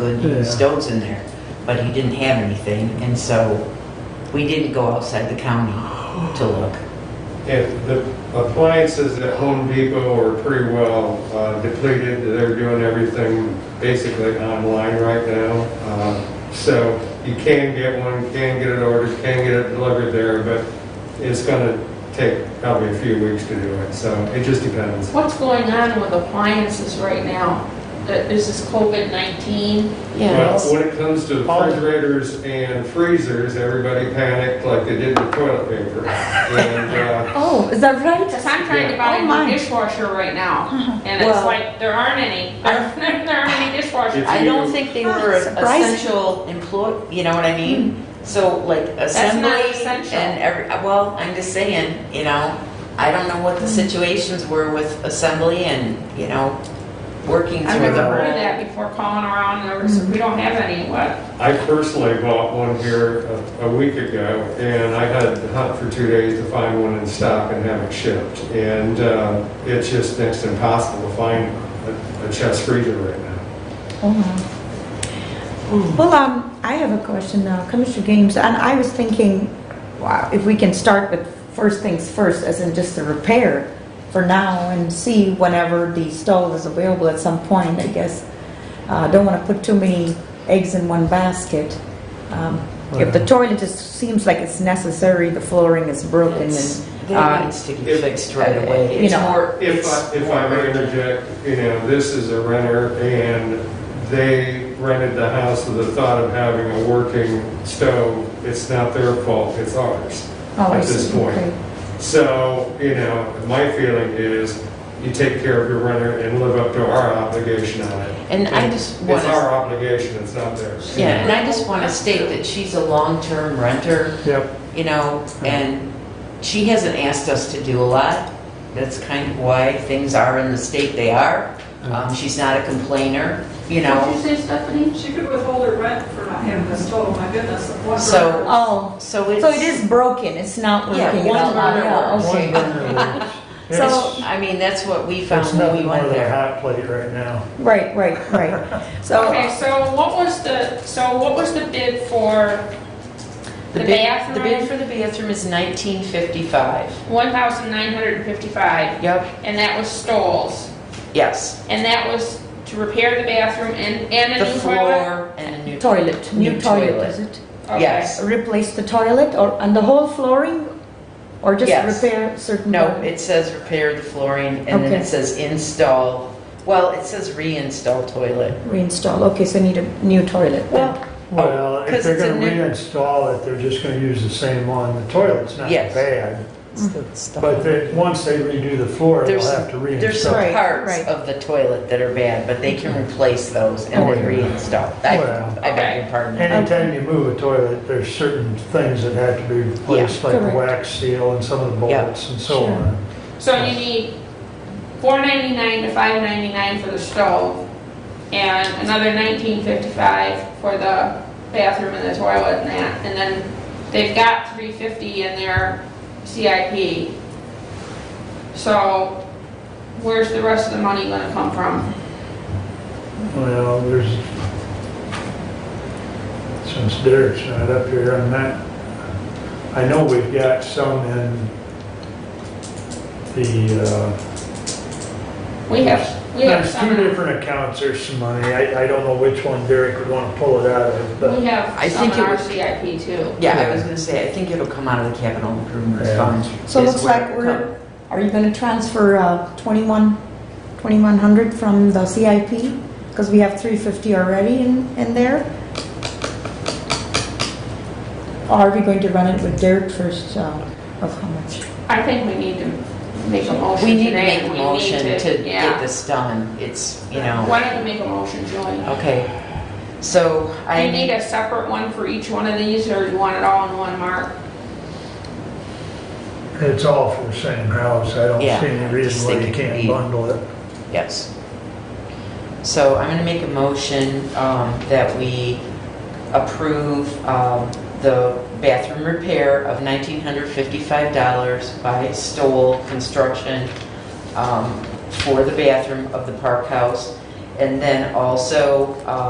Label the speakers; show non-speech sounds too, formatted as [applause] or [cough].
Speaker 1: good
Speaker 2: Yeah.
Speaker 1: stones in there, but he didn't have anything, and so we didn't go outside the county to look.
Speaker 3: If the appliances at Home Depot are pretty well uh, depleted, they're doing everything basically online right now. Uh, So you can get one, can get it ordered, can get it delivered there, but it's going to take probably a few weeks to do it, so it just depends.
Speaker 4: What's going on with appliances right now? That This is COVID-19.
Speaker 3: Well,
Speaker 5: Yes.
Speaker 3: when it comes to refrigerators and freezers, everybody panicked like they did with toilet paper. And uh,
Speaker 5: Oh, is that right?
Speaker 4: Because I'm trying to buy
Speaker 5: Oh, my.
Speaker 4: a new dishwasher right now, and it's
Speaker 6: Well-
Speaker 4: like, there aren't any. There [laughs] there aren't any dishwashers.
Speaker 3: If
Speaker 1: I
Speaker 3: you-
Speaker 1: don't think they were
Speaker 5: Surprising.
Speaker 1: essential employ, you know what I mean? So like
Speaker 4: not
Speaker 1: assembly
Speaker 4: essential.
Speaker 1: and every, well, I'm just saying, you know, I don't know what the situations were with assembly and, you know, working
Speaker 4: I've
Speaker 1: through
Speaker 4: never
Speaker 1: the
Speaker 4: heard of
Speaker 1: whole.
Speaker 4: that before calling around, and there was- we don't have any, what?
Speaker 3: I personally bought one here a- a week ago, and I had to hunt for two days to find one in stock and have it shipped. And uh, it's just next to impossible to find a- a chest freezer right now.
Speaker 5: Oh,
Speaker 3: Uh-huh.
Speaker 5: wow. Well, um, I have a question now, Commissioner Gaines, and I was thinking, wow, if we can start with first things first, as in just the repair for now and see whenever the stove is available at some point, I guess. Uh, don't wanna put too many eggs in one basket. Um, If the toilet just seems like it's necessary, the flooring is broken
Speaker 1: It's-
Speaker 5: and,
Speaker 1: That
Speaker 5: uh,
Speaker 1: needs to be
Speaker 3: if-
Speaker 1: fixed right away.
Speaker 5: you
Speaker 1: It's
Speaker 5: know,
Speaker 1: more.
Speaker 3: If
Speaker 1: it's
Speaker 3: I, if I
Speaker 1: more
Speaker 3: may interject, you know, this is a renter, and they rented the house with the thought of having a working stove. It's not their fault, it's ours.
Speaker 5: oh, I
Speaker 3: at this
Speaker 5: see,
Speaker 3: point.
Speaker 5: okay.
Speaker 3: So, you know, my feeling is you take care of your renter and live up to our obligation on it.
Speaker 1: And I just want
Speaker 3: It's
Speaker 1: to,
Speaker 3: our obligation, it's not theirs.
Speaker 1: yeah, and I just want to state that she's a long-term renter,
Speaker 2: Yep.
Speaker 1: you know, and she hasn't asked us to do a lot. That's kind of why things are in the state they are.
Speaker 2: Uh-huh.
Speaker 1: Um, she's not a complainer, you know,
Speaker 4: say, Stephanie?
Speaker 6: She could withhold her rent for not having this total, my goodness. one
Speaker 1: So-
Speaker 6: burner.
Speaker 5: Oh,
Speaker 1: so it's.
Speaker 5: so it is broken, it's not
Speaker 1: Yeah,
Speaker 5: working.
Speaker 1: one
Speaker 5: it's not-
Speaker 1: burner
Speaker 5: yeah,
Speaker 1: works.
Speaker 5: okay.
Speaker 2: One burner
Speaker 1: [laughs]
Speaker 2: works.
Speaker 5: So-
Speaker 2: It's,
Speaker 1: I mean, that's what we
Speaker 2: it's
Speaker 1: found when we
Speaker 2: nothing more
Speaker 1: went
Speaker 2: than a
Speaker 1: there.
Speaker 2: hot plate right now.
Speaker 5: Right, right,
Speaker 1: [laughs]
Speaker 5: right. So,
Speaker 4: Okay, so what was the, so what was the bid for the
Speaker 1: bid- The bid
Speaker 4: bathroom?
Speaker 1: for the bathroom is nineteen fifty-five.
Speaker 4: 1955
Speaker 1: Yep.
Speaker 4: and that was Stoll's.
Speaker 1: Yes,
Speaker 4: And that was to repair the bathroom and, and a
Speaker 1: the
Speaker 4: new toilet?
Speaker 1: floor and a new.
Speaker 5: toilet,
Speaker 1: New
Speaker 5: new
Speaker 1: toilet.
Speaker 5: toilet, is it?
Speaker 4: Okay.
Speaker 1: Yes.
Speaker 5: Replace the toilet or, and the whole flooring? Or just
Speaker 1: Yes.
Speaker 5: repair certain?
Speaker 1: No, it says repair the flooring, and then
Speaker 5: Okay.
Speaker 1: it says install, well, it says reinstall toilet.
Speaker 5: Reinstall, okay, so need a new toilet.
Speaker 1: Well,
Speaker 2: Well, if
Speaker 1: 'cause
Speaker 2: they're
Speaker 1: it's a
Speaker 2: gonna
Speaker 1: new-
Speaker 2: reinstall it, they're just gonna use the same one. The toilet's not
Speaker 1: Yes.
Speaker 2: bad. But they, once they redo the floor, they'll
Speaker 1: There's-
Speaker 2: have to
Speaker 1: There's
Speaker 2: reinstall.
Speaker 1: some
Speaker 5: Right,
Speaker 1: parts
Speaker 5: right.
Speaker 1: of the toilet that are bad, but they can replace those and
Speaker 2: Oh,
Speaker 1: then
Speaker 2: yeah.
Speaker 1: reinstall. I
Speaker 2: Well.
Speaker 1: I beg your pardon.
Speaker 2: Anytime you move a toilet, there's certain things that have to be replaced, like the
Speaker 5: correct.
Speaker 2: wax seal and some of the
Speaker 1: Yeah.
Speaker 2: bolts and so
Speaker 5: Sure.
Speaker 2: on.
Speaker 4: So you need four ninety nine to five ninety nine for the stove, and another nineteen fifty five for the bathroom and the toilet and that, and then they've got three fifty in their CIP. So where's the rest of the money gonna come from?
Speaker 2: Well, there's, since Derek's not up here on that, I know we've got some in the, uh,
Speaker 4: We have, we have
Speaker 2: there's two
Speaker 4: some,
Speaker 2: different accounts, there's some money. I, I don't know which one Derek would want to pull it out of, but
Speaker 4: we
Speaker 1: I
Speaker 4: have some
Speaker 1: think
Speaker 4: in
Speaker 1: it
Speaker 4: our
Speaker 1: was-
Speaker 4: CIP too.
Speaker 1: Yeah, I was gonna say, I think it'll come out of the capital improvement
Speaker 2: Yeah.
Speaker 1: fund.
Speaker 5: So
Speaker 1: is
Speaker 5: looks
Speaker 1: where
Speaker 5: like
Speaker 1: it'll come.
Speaker 5: we're, are you gonna transfer uh, 21, 2100 from the CIP? Because we have 350 already in, in there? Or are we going to run it with Derek first, uh, of how much?
Speaker 4: I think we need to make a motion
Speaker 1: We need to
Speaker 4: today,
Speaker 1: make a
Speaker 4: and we
Speaker 1: motion to get
Speaker 4: yeah.
Speaker 1: this done. It's, you know,
Speaker 4: Why don't you make a motion, Julie?
Speaker 1: okay. So
Speaker 4: Do
Speaker 1: I
Speaker 4: you need
Speaker 1: need,
Speaker 4: a separate one for each one of these, or do you want it all in one, Mark?
Speaker 2: it's all for the same house. I don't see
Speaker 1: Yeah,
Speaker 2: any
Speaker 1: just
Speaker 2: reason why
Speaker 1: think
Speaker 2: you
Speaker 1: it could
Speaker 2: can't
Speaker 1: be-
Speaker 2: bundle it.
Speaker 1: yes. So I'm gonna make a motion um, that we approve um, the bathroom repair of $1,955 by Stoll Construction um, for the bathroom of the Park House. And then also um,